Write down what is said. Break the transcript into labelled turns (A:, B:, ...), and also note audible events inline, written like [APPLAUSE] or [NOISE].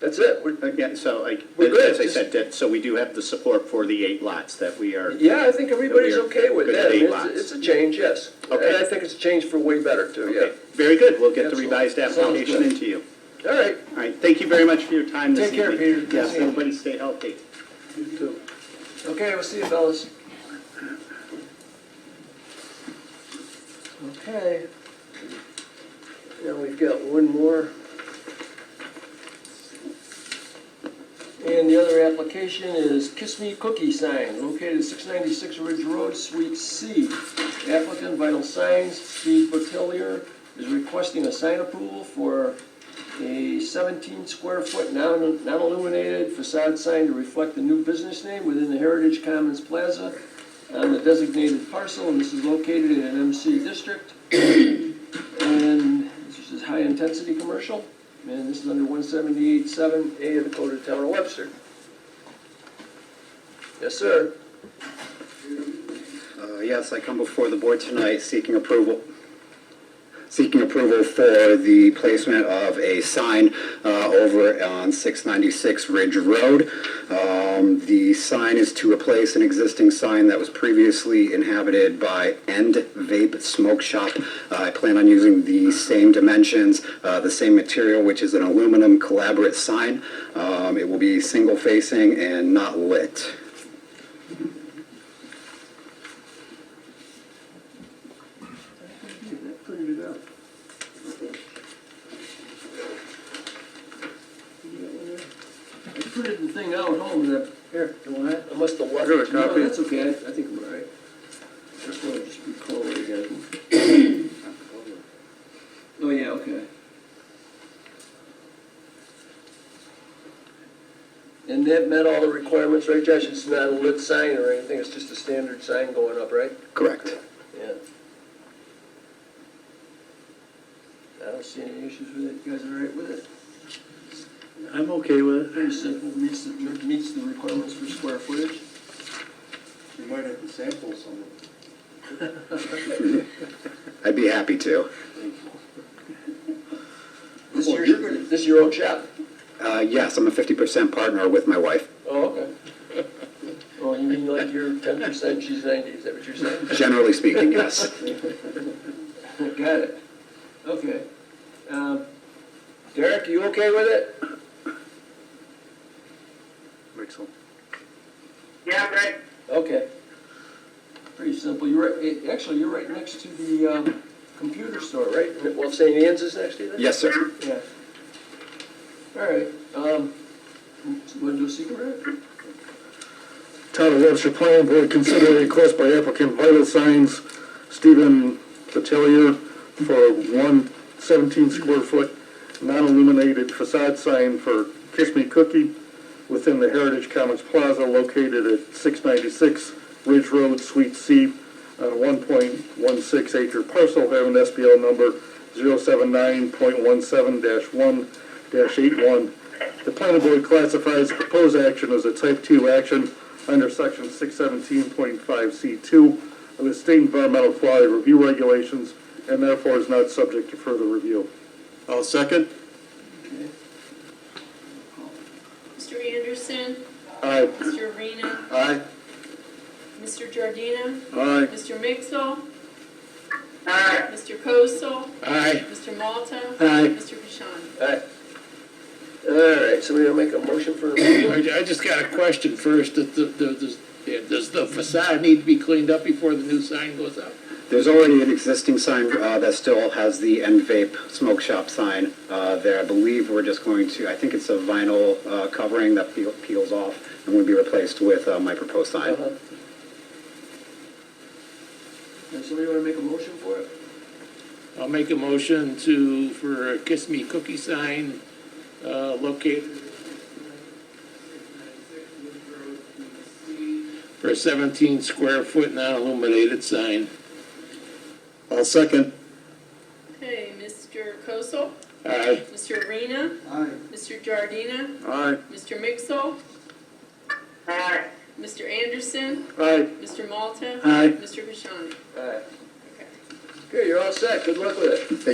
A: That's it. We're-
B: Uh, Yeah, so like,
A: We're good.
B: as I said, that, so we do have the support for the eight lots that we are.
A: Yeah, I think everybody's okay with
B: Good
A: that. I mean,
B: eight
A: it's-
B: lots.
A: It's a change, yes. And
B: Okay.
A: I think it's a change for way better too,
B: Okay,
A: yeah.
B: Very good, we'll get the
A: Absolutely.
B: revised
A: Sounds
B: application
A: good.
B: into you.
A: All right.
B: All right, thank you very much for your time this
A: Take care,
B: evening.
A: Peter. Good
B: Yes,
A: seeing you.
B: everybody stay healthy.
A: You too. Okay, we'll see you fellas. Okay. Now we've got one more. And the other application is Kiss Me Cookie Sign, located at six ninety-six Ridge Road, Suite C. Applicant Vital Signs, Steve Botelier, is requesting a sign approval for a seventeen square foot non- non-illuminated facade sign to reflect the new business name within the Heritage Commons Plaza on the designated parcel, and this is located in an MC district. And this is high-intensity commercial, and this is under one seventy-eight seven A of the Code of the Town of Webster. Yes, sir.
C: Uh, Yes, I come before the board tonight seeking approval, seeking approval for the placement of a sign uh, over on 696 Ridge Road. Um, The sign is to replace an existing sign that was previously inhabited by End Vape Smoke Shop. Uh, I plan on using the same dimensions, uh, the same material, which is an aluminum collaborate sign. Um, It will be single facing and not lit.
A: Figured it out. I printed the thing out at home, that, here, you want it? Unless the water.
D: Here, a copy.
A: No, that's okay, I I think I'm all right. Just wanna just recall it again. [COUGHS] Oh, yeah, okay. And that met all the requirements, right, Josh? It's not a lit sign or anything, it's just a standard sign going up, right?
C: Correct.
A: Yeah. I don't see any issues with it, you guys all right with it?
D: I'm okay with it.
A: Pretty simple, meets the, meets the requirements for square footage.
E: You might have to sample some of it.
C: I'd be happy to.
A: This is your, Oh, this is your own shop?
C: Uh, yes, I'm a 50% partner with my wife.
A: Oh, okay. [LAUGHS] Oh, you mean like you're ten percent, she's ninety, is that what you're saying?
C: Generally speaking, yes.
A: Got it, okay. Um, Derek, you okay with it?
D: Excellent.
F: Yeah, I'm right.
A: Okay. Pretty simple, you're right, eh, actually, you're right next to the, um, computer store, right? Well, St. Anne's is next to you then?
C: Yes, sir.
A: Yeah. All right, um, want to do a secret? round?
D: Town of Webster Planning Board, consider a request by applicant Vital Signs, Stephen Patelier, for one 17 square foot non-illuminated facade sign for Kiss Me Cookie within the Heritage Commons Plaza located at 696 Ridge Road, Suite C, on a 1.16 acre parcel having SBL number 079.17-1-81. The planning board classifies proposed action as a type 2 action under section 617.5C2 of the state environmental quality review regulations and therefore is not subject to further review.
E: I'll second.
G: Mr. Anderson,
D: Aye.
G: Mr. Arena,
D: Aye.
G: Mr. Giardina,
D: Aye.
G: Mr. Mixel,
F: Aye.
G: Mr. Kosel,
D: Aye.
G: Mr. Malta.
D: Aye.
G: Mr. Pishani.
A: All right. All right, somebody will make a motion for,
H: I, I just got a question first, does, the- does, does the facade need to be cleaned up before the new sign goes up?
C: There's already an existing sign uh, that still has the end vape smoke shop sign uh, there. I believe we're just going to, I think it's a vinyl uh, covering that peel- peels off and would be replaced with uh, my proposed sign.
A: Uh-huh. Does somebody want to make a motion for it?
H: I'll make a motion to, for a Kiss Me Cookie sign, uh, located for a seventeen square foot non-illuminated sign.
D: I'll second.
G: Okay, Mr. Kosel,
H: Aye.
G: Mr. Arena,
E: Aye.
G: Mr. Giardina,
D: Aye.
G: Mr. Mixel,
F: Aye.
G: Mr. Anderson,
D: Aye.
G: Mr. Malta.
D: Aye.
G: Mr. Pishani.
A: All right.
G: Okay.
A: Okay, you're all set, good luck with it.